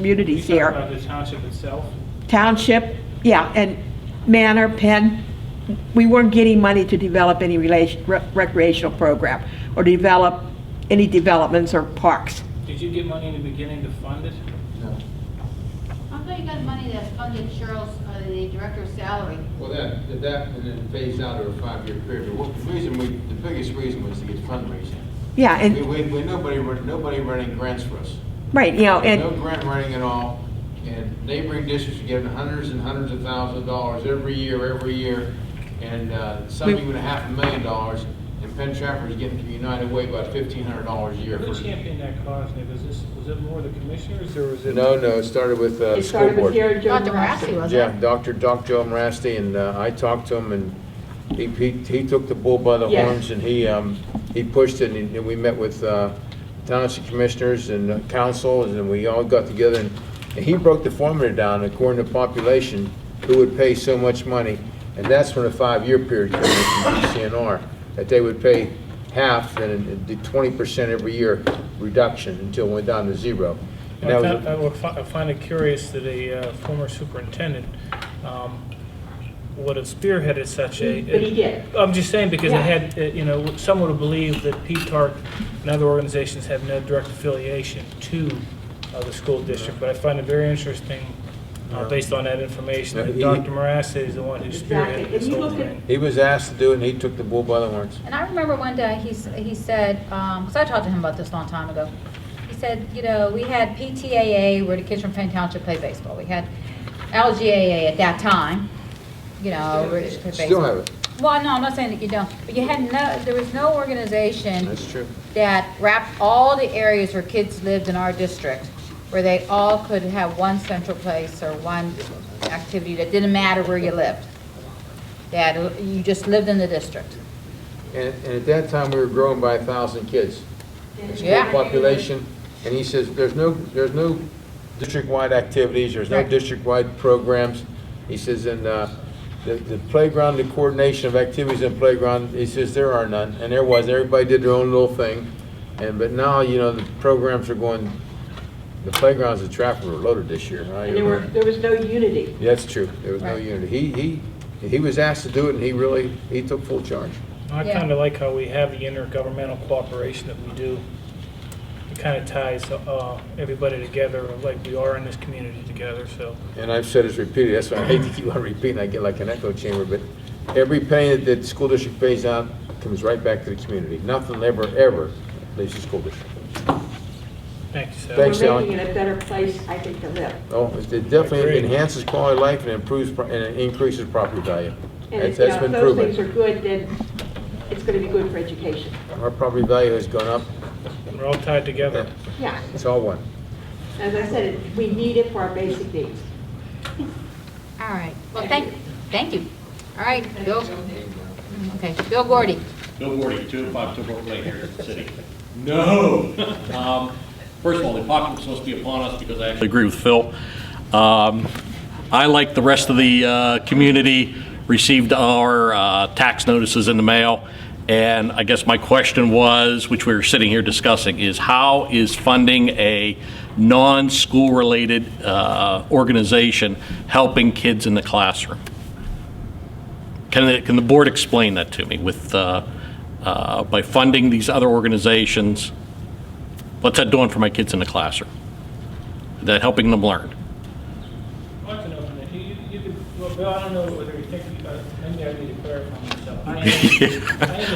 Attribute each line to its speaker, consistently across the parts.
Speaker 1: communities
Speaker 2: You
Speaker 1: here.
Speaker 2: talk about the township itself?
Speaker 1: Township, yeah, and Manor, Penn, we weren't getting money to develop any relation, rec- recreational program or develop any developments or parks.
Speaker 2: Did you get money in the beginning to fund it?
Speaker 3: No.
Speaker 4: How come you got money that funded Cheryl's, uh, the director's salary?
Speaker 3: Well, that, that- that, and then phased out over a five-year period. But what, the reason we, the biggest reason was to get fundraising.
Speaker 1: Yeah,
Speaker 3: We,
Speaker 1: and,
Speaker 3: we, we, nobody, run- nobody running grants for us.
Speaker 1: right, you know,
Speaker 3: No
Speaker 1: and,
Speaker 3: grant running at all. And neighboring districts are giving hundreds and hundreds of thousands of dollars every year, every year. And, uh, some
Speaker 1: We-
Speaker 3: even a half a million dollars. And Penn Trafford's getting from United Way about fifteen hundred dollars a year.
Speaker 2: Who
Speaker 3: for-
Speaker 2: championed that cause, Nick? Was this, was it more the commissioners, or was it?
Speaker 3: No, no, it started with, uh,
Speaker 1: it
Speaker 3: school
Speaker 1: started with
Speaker 3: board.
Speaker 1: Gary Joe
Speaker 4: Dr. Grassi was
Speaker 3: Yeah,
Speaker 4: it?
Speaker 3: Dr. Doc Joe Rasty, and uh, I talked to him, and he, he he took the bull by the
Speaker 1: Yes.
Speaker 3: horns, and he, um, he pushed it, and and we met with uh, township commissioners and uh, councils, and we all got together, and and he broke the formula down according to population, who would pay so much money, and that's when the five-year period came in from DCNR, that they would pay half, and the twenty percent every year reduction until it went down to zero. And that
Speaker 5: I
Speaker 3: was
Speaker 5: found- I would fi- I find it curious that a uh, former superintendent um, would have spearheaded such a.
Speaker 1: But he did.
Speaker 5: I'm just saying because it
Speaker 1: Yeah.
Speaker 5: had, uh, you know, some would have believed that P-TARC and other organizations have no direct affiliation to uh, the school district. But I find it very interesting, uh, based on that information,
Speaker 3: No,
Speaker 5: that
Speaker 3: he-
Speaker 5: Dr. Marassi is the one who
Speaker 1: Exactly.
Speaker 5: spearheaded this
Speaker 1: And you
Speaker 5: whole
Speaker 1: look at-
Speaker 5: thing.
Speaker 3: He was asked to do it, and he took the bull by the horns.
Speaker 6: And I remember one day, he, s- he said, because I talked to him about this a long time ago, he said, you know, we had PTAA, where the kids from Penn Township play baseball, we had LGAA at that time, you know, where they play baseball.
Speaker 3: Still have it.
Speaker 6: Well, no, I'm not saying that you don't, but you had no, there was no organization
Speaker 3: That's true.
Speaker 6: that wrapped all the areas where kids lived in our district, where they all could have one central place or one activity that didn't matter where you lived, that uh, you just lived in the district.
Speaker 3: And, and at that time, we were growing by a thousand kids. The School
Speaker 6: Yeah.
Speaker 3: population, and he says, there's no, there's no district-wide activities, there's no
Speaker 6: Right.
Speaker 3: district-wide programs. He says, and, uh, the, the playground, the coordination of activities in playground, he says, there are none, and there was, everybody did their own little thing. And, but now, you know, the programs are going, the playgrounds at Trafford were loaded this year. I-
Speaker 1: and there were, there was no unity.
Speaker 3: That's true, there was no
Speaker 6: Right.
Speaker 3: unity. He, he, he was asked to do it, and he really, he took full charge.
Speaker 5: I
Speaker 6: Yeah.
Speaker 5: kind of like how we have the intergovernmental cooperation that we do. It kind of ties uh, everybody together, like we are in this community together, so.
Speaker 3: and I've said this repeatedly, that's why I hate to keep on repeating, I get like an echo chamber, but every penny that the school district pays out comes right back to the community. Nothing ever, ever leaves the school district.
Speaker 5: Thank you, Sal.
Speaker 3: Thanks,
Speaker 1: We're
Speaker 3: Ellen.
Speaker 1: making it a better place, I think, to live.
Speaker 3: Oh, it definitely
Speaker 5: Agreed.
Speaker 3: enhances quality of life and improves, pro- and it increases property value.
Speaker 1: And
Speaker 3: That's
Speaker 1: if,
Speaker 3: that's
Speaker 1: yeah,
Speaker 3: been
Speaker 1: if those things
Speaker 3: proven.
Speaker 1: are good, then it's gonna be good for education.
Speaker 3: Our property value has gone up,
Speaker 5: We're all tied together.
Speaker 1: Yeah,
Speaker 3: it's all one.
Speaker 1: as I said, it- we need it for our basic needs.
Speaker 6: All right, well, thank, thank you. All right, Bill, okay, Bill Gordy.
Speaker 7: Bill Gordy, 205 Took Lane here in the city. No! Um, First of all, the apocalypse must be upon us because I actually agree with Phil. Um, I, like the rest of the uh, community, received our uh, tax notices in the mail, and I guess my question was, which we were sitting here discussing, is how is funding a non-school-related uh, organization helping kids in the classroom? Can, the- can the board explain that to me with, uh, uh, by funding these other organizations? What's that doing for my kids in the classroom? Is that helping them learn?
Speaker 2: I'd like to know, from the- you, you could, well, Bill, I don't know whether you think, uh, maybe I need to clarify myself. I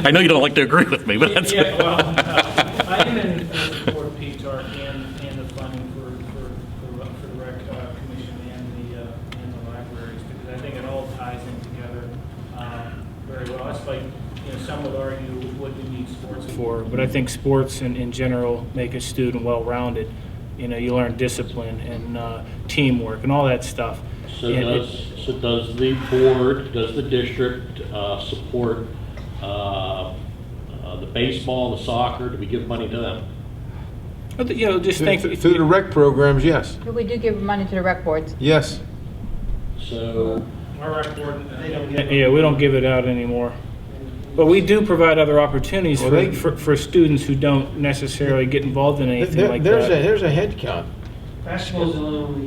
Speaker 2: am-
Speaker 7: I know you don't like to agree with me, but that's.
Speaker 2: Yeah, well, uh, I am in support of PTARC and, and the funding for, for, for- for the rec uh, commission and the, uh, and the libraries, because I think it all ties in together um, very well. It's like, you know, some would argue what do you need sports for?
Speaker 5: for, but I think sports in, in general make a student well-rounded. You know, you learn discipline and uh, teamwork and all that stuff.
Speaker 8: So
Speaker 5: And it-
Speaker 8: does, so does the board, does the district uh, support uh, uh, the baseball, the soccer? Do we give money to them?
Speaker 5: but, You know, just think,
Speaker 3: Through the rec programs, yes,
Speaker 6: We do give money to the rec boards.
Speaker 3: yes.
Speaker 8: So
Speaker 2: Our rec board, uh, they don't get.
Speaker 5: yeah, we don't give it out anymore. But we do provide other opportunities
Speaker 3: Well,
Speaker 5: for,
Speaker 3: they-
Speaker 5: for, for students who don't necessarily get involved in anything
Speaker 3: There-
Speaker 5: like
Speaker 3: There's a,
Speaker 5: that.
Speaker 3: there's a head count.
Speaker 2: Basketball's the only one we